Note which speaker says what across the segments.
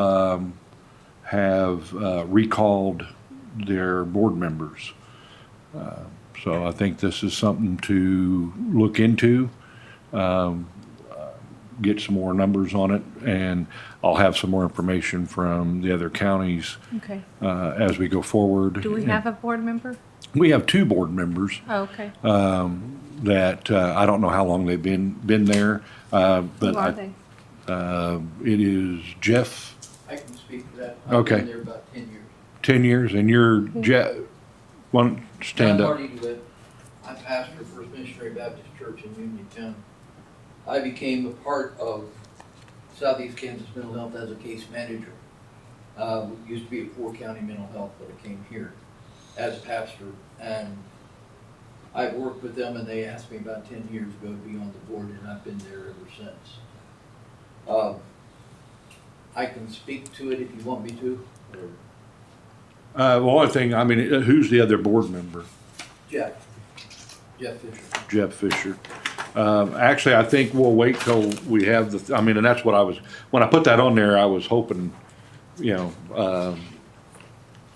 Speaker 1: um, have uh, recalled their board members. Uh, So I think this is something to look into, um, uh, get some more numbers on it, and I'll have some more information from the other counties
Speaker 2: Okay.
Speaker 1: uh, as we go forward.
Speaker 2: Do we have a board member?
Speaker 1: We have two board members
Speaker 2: Oh, okay.
Speaker 1: Uh, that, uh, I don't know how long they've been, been there, uh, but
Speaker 2: Who are
Speaker 1: I- uh,
Speaker 2: they?
Speaker 1: it is Jeff,
Speaker 3: I can speak to that.
Speaker 1: Okay.
Speaker 3: I've been there about ten years.
Speaker 1: 10 years, and you're Jeff, one, stand
Speaker 3: John
Speaker 1: up.
Speaker 3: Hardy DeWitt. I pastor First Missionary Baptist Church in Union County. I became a part of Southeast Kansas Mental Health as a case manager. Uh, it used to be a poor county mental health, but I came here as pastor and I worked with them and they asked me about ten years ago to be on the board and I've been there ever since. Uh, I can speak to it if you want me to, or
Speaker 1: Uh, well, one thing, I mean, uh, who's the other board member?
Speaker 3: Jeff, Jeff Fisher.
Speaker 1: Jeff Fisher. Um, actually, I think we'll wait till we have the, I mean, and that's what I was, when I put that on there, I was hoping, you know, um,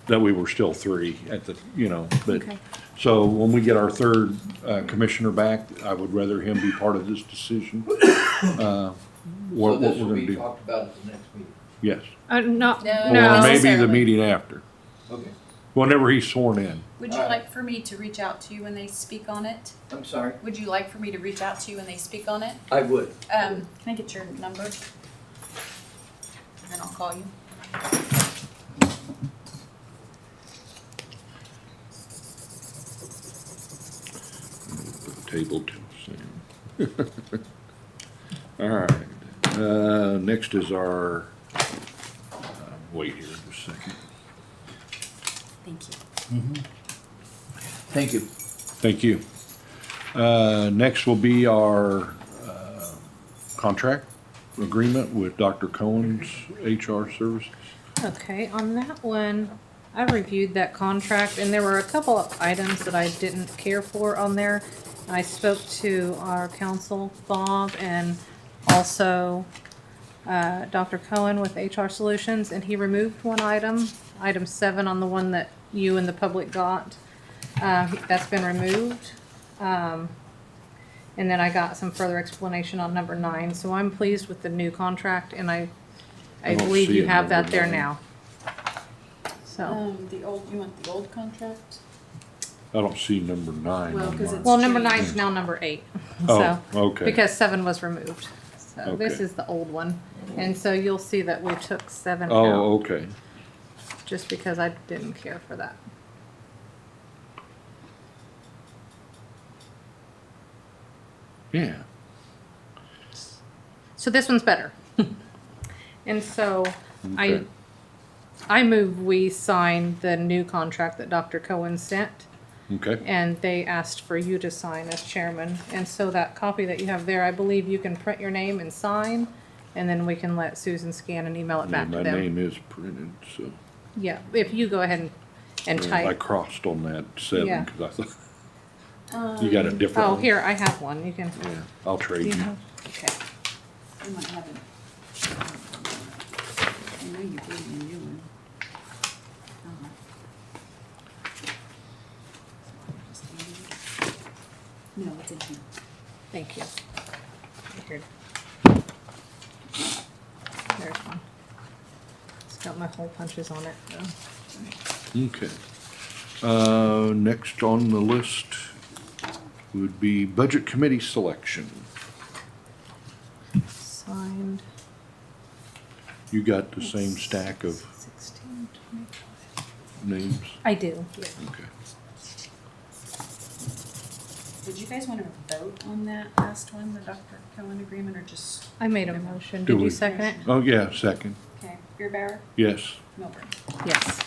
Speaker 1: that we were still three at the, you know, but,
Speaker 2: Okay.
Speaker 1: so when we get our third, uh, commissioner back, I would rather him be part of this decision. uh,
Speaker 3: So
Speaker 1: What, what
Speaker 3: this
Speaker 1: we're
Speaker 3: will
Speaker 1: gonna
Speaker 3: be
Speaker 1: do,
Speaker 3: talked about at the next meeting.
Speaker 1: yes.
Speaker 2: Uh, not,
Speaker 4: No.
Speaker 1: Or
Speaker 2: no.
Speaker 1: maybe the
Speaker 4: necessarily.
Speaker 1: meeting after,
Speaker 3: Okay.
Speaker 1: whenever he's sworn in.
Speaker 4: Would you like for me to reach out to you when they speak on it?
Speaker 3: I'm sorry.
Speaker 4: Would you like for me to reach out to you when they speak on it?
Speaker 3: I would.
Speaker 4: Um, can I get your number? And then I'll call you.
Speaker 1: Table two, same. All right, uh, next is our, uh, wait here just a second.
Speaker 4: Thank you.
Speaker 3: Thank you.
Speaker 1: Thank you. Uh, next will be our, uh, contract agreement with Dr. Cohen's HR services.
Speaker 2: Okay, on that one, I reviewed that contract and there were a couple of items that I didn't care for on there. I spoke to our counsel, Bob, and also uh, Dr. Cohen with HR Solutions, and he removed one item, item seven on the one that you and the public got. Uh, That's been removed. Um, And then I got some further explanation on number nine, so I'm pleased with the new contract, and I,
Speaker 1: I
Speaker 2: I
Speaker 1: don't
Speaker 2: believe
Speaker 1: see
Speaker 2: you
Speaker 1: it
Speaker 2: have
Speaker 1: number
Speaker 2: that there
Speaker 1: nine.
Speaker 2: now. So,
Speaker 4: Um, the old, you want the old contract?
Speaker 1: I don't see number nine
Speaker 4: Well,
Speaker 1: on
Speaker 4: 'cause
Speaker 1: mine.
Speaker 2: well, number
Speaker 4: Change.
Speaker 2: nine is now number eight, so,
Speaker 1: Oh, okay,
Speaker 2: because seven was removed. So this
Speaker 1: Okay.
Speaker 2: is the old one, and so you'll see that we took seven out,
Speaker 1: oh, okay.
Speaker 2: just because I didn't care for that.
Speaker 1: Yeah,
Speaker 2: So this one's better. And so I,
Speaker 1: Okay.
Speaker 2: I move we sign the new contract that Dr. Cohen sent.
Speaker 1: okay,
Speaker 2: And they asked for you to sign as chairman. And so that copy that you have there, I believe you can print your name and sign. And then we can let Susan scan and email it
Speaker 1: Yeah,
Speaker 2: back
Speaker 1: my
Speaker 2: to them.
Speaker 1: name is printed, so.
Speaker 2: Yeah, if you go ahead and, and
Speaker 1: I
Speaker 2: type.
Speaker 1: crossed on that
Speaker 2: Yeah.
Speaker 1: seven, cause I thought, you got a different
Speaker 2: Oh,
Speaker 1: one?
Speaker 2: here, I have one. You can.
Speaker 1: Yeah, I'll
Speaker 2: do
Speaker 1: trade
Speaker 2: you
Speaker 1: you.
Speaker 2: have- Okay.
Speaker 4: You might have it. I know you gave me a new one. Uh-huh. No, it's in here.
Speaker 2: Thank you. Here. There's one. It's got my hole punches on it, Oh, though.
Speaker 1: Okay. Uh, next on the list would be Budget Committee selection.
Speaker 2: Signed.
Speaker 1: You got the same stack of
Speaker 2: 16, 20.
Speaker 1: names?
Speaker 2: I do, yeah.
Speaker 1: Okay.
Speaker 4: Did you guys want to vote on that last one, the Dr. Cohen agreement, or just,
Speaker 2: I made a motion.
Speaker 1: Do
Speaker 2: Did
Speaker 1: we-
Speaker 2: you second it?
Speaker 1: Oh, yeah, second,
Speaker 4: okay, Beerbauer,
Speaker 1: yes.
Speaker 4: Milburn?
Speaker 2: Yes.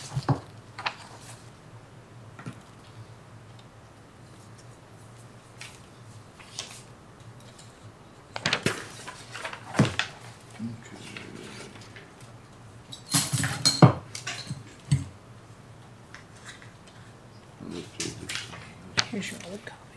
Speaker 1: Okay.
Speaker 2: Here's your old copy.